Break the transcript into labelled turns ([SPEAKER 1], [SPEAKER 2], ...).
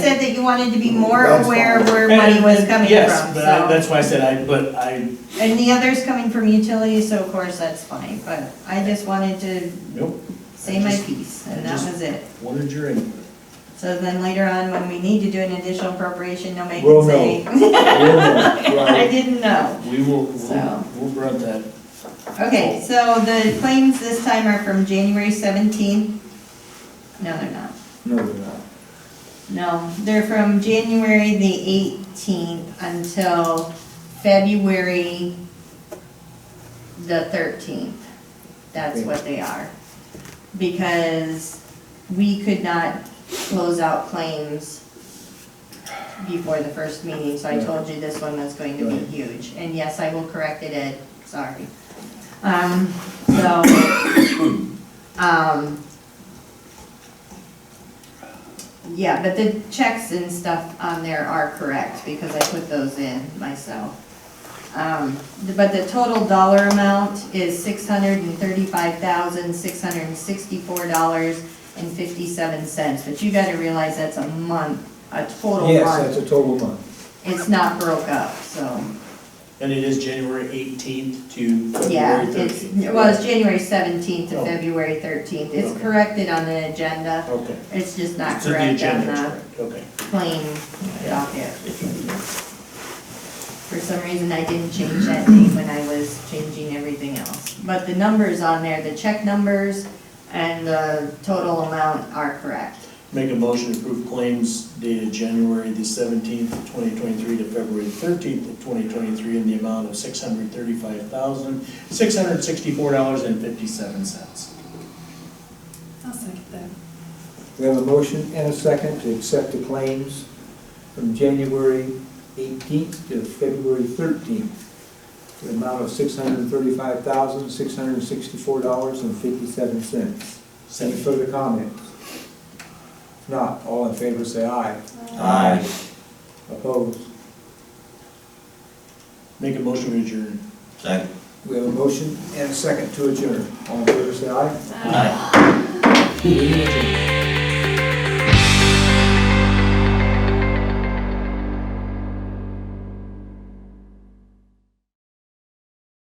[SPEAKER 1] said that you wanted to be more
[SPEAKER 2] That's
[SPEAKER 1] aware of where
[SPEAKER 3] And-
[SPEAKER 1] money was
[SPEAKER 3] and-
[SPEAKER 1] coming
[SPEAKER 3] Yes,
[SPEAKER 1] from,
[SPEAKER 3] but I-
[SPEAKER 1] so.
[SPEAKER 3] that's why I said I, but I,
[SPEAKER 1] And the other's coming from utilities, so of course that's fine, but I just wanted to
[SPEAKER 3] nope,
[SPEAKER 1] say my piece, and that
[SPEAKER 3] Just-
[SPEAKER 1] was it.
[SPEAKER 3] wanted your input.
[SPEAKER 1] So then later on, when we need to do an additional appropriation, no make
[SPEAKER 2] We'll
[SPEAKER 1] and say, I
[SPEAKER 2] Right.
[SPEAKER 1] didn't know.
[SPEAKER 3] We will, we'll,
[SPEAKER 1] So.
[SPEAKER 3] we'll brunt that.
[SPEAKER 1] Okay, so the claims this time are from January seventeenth. No, they're not.
[SPEAKER 2] No, they're not.
[SPEAKER 1] No, they're from January the eighteenth until February the thirteenth. That's what they are. Because we could not close out claims before the first meeting, so I told you this one was going to be
[SPEAKER 2] Right.
[SPEAKER 1] huge. And yes, I will correct it, Ed, sorry. Um, so, um, yeah, but the checks and stuff on there are correct, because I put those in myself. Um, the- but the total dollar amount is six hundred and thirty-five thousand, six hundred and sixty-four dollars and fifty-seven cents, but you gotta realize that's a month, a total
[SPEAKER 2] Yes, that's
[SPEAKER 1] month.
[SPEAKER 2] a total month.
[SPEAKER 1] It's not broke up, so,
[SPEAKER 3] And it is January eighteenth to
[SPEAKER 1] yeah,
[SPEAKER 3] February
[SPEAKER 1] it's,
[SPEAKER 3] thirteenth.
[SPEAKER 1] well, it's January seventeenth to
[SPEAKER 2] Oh.
[SPEAKER 1] February thirteenth, it's
[SPEAKER 2] Okay.
[SPEAKER 1] corrected on the agenda,
[SPEAKER 2] Okay.
[SPEAKER 1] it's just not
[SPEAKER 3] So the
[SPEAKER 1] correct on
[SPEAKER 3] agenda is
[SPEAKER 1] the
[SPEAKER 3] correct, okay.
[SPEAKER 1] plain docket. For some reason, I didn't change that date when I was changing everything else. But the numbers on there, the check numbers and the total amount are correct.
[SPEAKER 3] Make a motion to approve claims dated January the seventeenth, twenty twenty-three to February thirteenth of twenty twenty-three in the amount of six hundred thirty-five thousand, six hundred sixty-four dollars and fifty-seven cents.
[SPEAKER 4] I'll second that.
[SPEAKER 2] We have a motion and a second to accept the claims from January eighteenth to February thirteenth. The amount of six hundred and thirty-five thousand, six hundred and sixty-four dollars and fifty-seven cents. Any further comments? If not, all in favor say aye.
[SPEAKER 3] Aye.
[SPEAKER 2] Opposed?
[SPEAKER 3] Make a motion to adjourn.
[SPEAKER 5] Second.
[SPEAKER 2] We have a motion and a second to adjourn. All in favor say aye.
[SPEAKER 5] Aye.
[SPEAKER 3] We adjourn.